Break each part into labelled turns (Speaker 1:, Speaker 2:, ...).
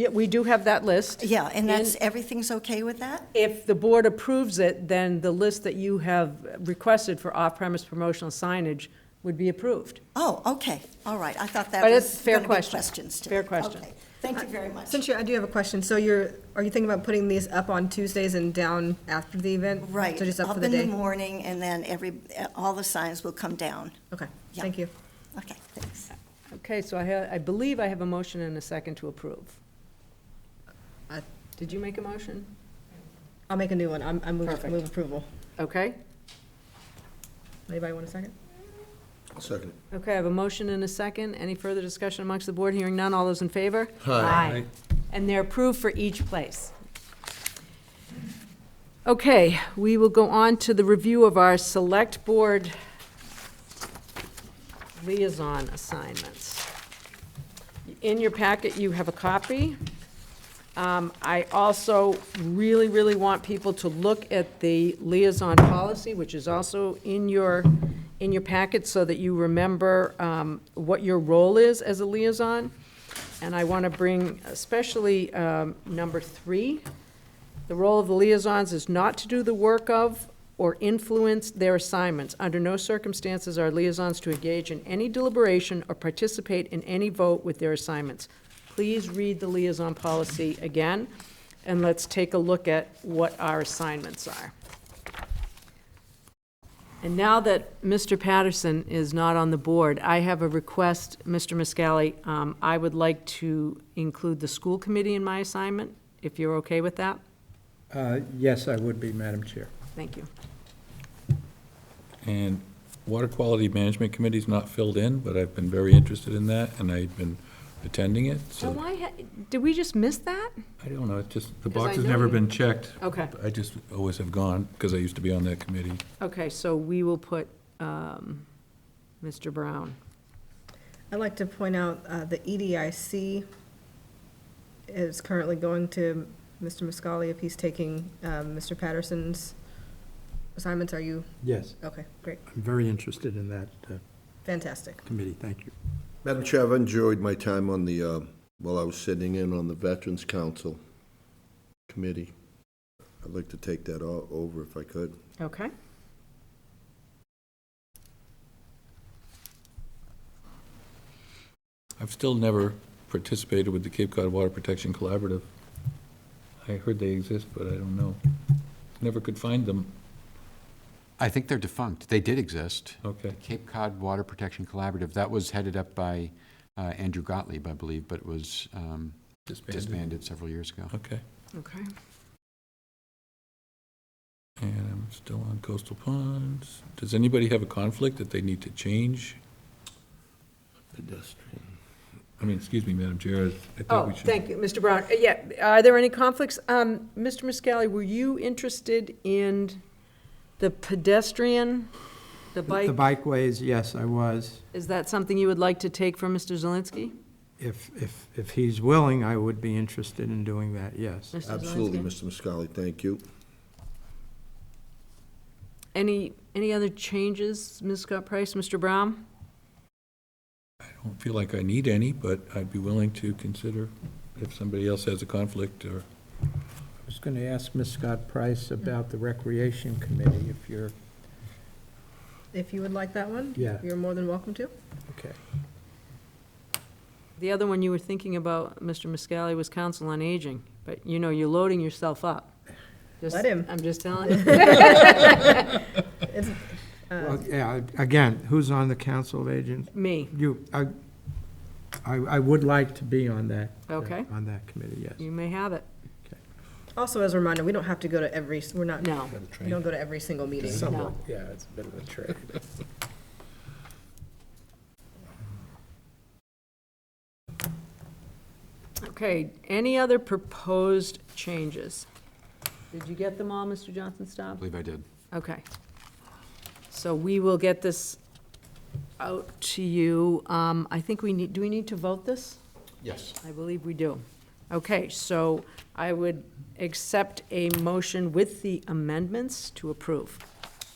Speaker 1: Yeah, we do have that list.
Speaker 2: Yeah, and that's, everything's okay with that?
Speaker 1: If the board approves it, then the list that you have requested for off-premise promotional signage would be approved.
Speaker 2: Oh, okay, all right, I thought that
Speaker 1: But
Speaker 2: was
Speaker 1: it's fair
Speaker 2: gonna be
Speaker 1: question.
Speaker 2: questions today.
Speaker 1: Fair question.
Speaker 2: Okay, Thank you very much.
Speaker 3: Since you, I do have a question. So you're, are you thinking about putting these up on Tuesdays and down after the event?
Speaker 2: Right,
Speaker 3: So just up
Speaker 2: up
Speaker 3: for the
Speaker 2: in the
Speaker 3: day?
Speaker 2: morning, and then every, all the signs will come down.
Speaker 3: Okay,
Speaker 2: Yeah.
Speaker 3: thank you.
Speaker 2: Okay, thanks.
Speaker 1: Okay, so I ha I believe I have a motion and a second to approve.
Speaker 3: I-
Speaker 1: Did you make a motion?
Speaker 3: I'll make a new one. I'm, I move,
Speaker 1: Perfect.
Speaker 3: move approval.
Speaker 1: Okay,
Speaker 3: Anybody want a second?
Speaker 4: I'll second it.
Speaker 1: okay, I have a motion and a second. Any further discussion amongst the board? Hearing none, all those in favor?
Speaker 4: Hi.
Speaker 1: And they're approved for each place. Okay, we will go on to the review of our select board liaison assignments. In your packet, you have a copy. Um, I also really, really want people to look at the liaison policy, which is also in your, in your packet, so that you remember um, what your role is as a liaison. And I want to bring especially um, number three, the role of the liaisons is not to do the work of or influence their assignments. Under no circumstances are liaisons to engage in any deliberation or participate in any vote with their assignments. Please read the liaison policy again, and let's take a look at what our assignments are. And now that Mr. Patterson is not on the board, I have a request, Mr. Muscally. Um, I would like to include the school committee in my assignment, if you're okay with that.
Speaker 5: Uh, Yes, I would be, Madam Chair.
Speaker 1: Thank you.
Speaker 6: And Water Quality Management Committee's not filled in, but I've been very interested in that, and I've been attending it,
Speaker 1: Oh,
Speaker 6: so,
Speaker 1: why, ha- did we just miss that?
Speaker 6: I don't know, it's just, the
Speaker 1: 'Cause I
Speaker 6: box has
Speaker 1: know
Speaker 6: never
Speaker 1: you- Oh.
Speaker 6: been checked.
Speaker 1: Okay,
Speaker 6: I just always have gone, because I used to be on that committee.
Speaker 1: okay, so we will put um, Mr. Brown.
Speaker 3: I'd like to point out, uh, the EDIC is currently going to Mr. Muscali if he's taking, um, Mr. Patterson's assignments. Are you,
Speaker 5: Yes,
Speaker 3: okay, great,
Speaker 5: I'm very interested in that uh,
Speaker 3: fantastic.
Speaker 5: committee, thank you.
Speaker 4: Madam Chair, I've enjoyed my time on the, uh, while I was sitting in on the Veterans Council Committee. I'd like to take that o- over if I could.
Speaker 1: Okay.
Speaker 6: I've still never participated with the Cape Cod Water Protection Collaborative. I heard they exist, but I don't know. Never could find them.
Speaker 7: I think they're defunct. They did exist.
Speaker 6: Okay.
Speaker 7: Cape Cod Water Protection Collaborative, that was headed up by uh, Andrew Gottlieb, I believe, but was um, disbanded several years ago.
Speaker 6: Okay.
Speaker 1: Okay.
Speaker 6: And I'm still on coastal ponds. Does anybody have a conflict that they need to change?
Speaker 4: Pedestrian.
Speaker 6: I mean, excuse me, Madam Chair, I think
Speaker 1: Oh,
Speaker 6: we should.
Speaker 1: thank you, Mr. Brown. Uh, Yeah, are there any conflicts? Um, Mr. Muscally, were you interested in the pedestrian, the
Speaker 5: The
Speaker 1: bike?
Speaker 5: bikeways, yes, I was.
Speaker 1: Is that something you would like to take from Mr. Zelinski?
Speaker 5: If, if, if he's willing, I would be interested in doing that, yes.
Speaker 1: Mr.
Speaker 4: Absolutely,
Speaker 1: Zelinski?
Speaker 4: Mr. Muscali, thank you.
Speaker 1: Any, any other changes, Ms. Scott Price, Mr. Brown?
Speaker 6: I don't feel like I need any, but I'd be willing to consider if somebody else has a conflict or,
Speaker 5: I was going to ask Ms. Scott Price about the Recreation Committee, if you're,
Speaker 3: If you would like that one?
Speaker 5: Yeah.
Speaker 3: You're more than welcome to.
Speaker 5: okay.
Speaker 1: The other one you were thinking about, Mr. Muscally, was Council on Aging, but you know, you're loading yourself up. Just-
Speaker 3: Let him.
Speaker 1: I'm just telling you.
Speaker 3: It's, uh,
Speaker 5: Well, yeah, again, who's on the Council of Agents?
Speaker 1: Me,
Speaker 5: You, I, I I would like to be on that. uh,
Speaker 1: Okay.
Speaker 5: On that committee, yes.
Speaker 1: you may have it.
Speaker 3: Also, as a reminder, we don't have to go to every, we're not,
Speaker 1: No.
Speaker 3: we don't go to every single meeting.
Speaker 1: Somewhat,
Speaker 5: yeah, it's a bit of a trade.
Speaker 1: Okay, any other proposed changes? Did you get them all, Mr. Johnson
Speaker 7: I
Speaker 1: Staub?
Speaker 7: believe I did.
Speaker 1: Okay. So we will get this out to you. Um, I think we need, do we need to vote this?
Speaker 7: Yes.
Speaker 1: I believe we do. Okay, so I would accept a motion with the amendments to approve.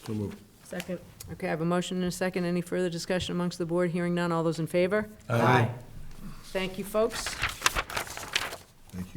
Speaker 4: So moved.
Speaker 3: Second,
Speaker 1: Okay, I have a motion and a second. Any further discussion amongst the board? Hearing none. All those in favor?
Speaker 5: Aye.
Speaker 1: Thank you, folks.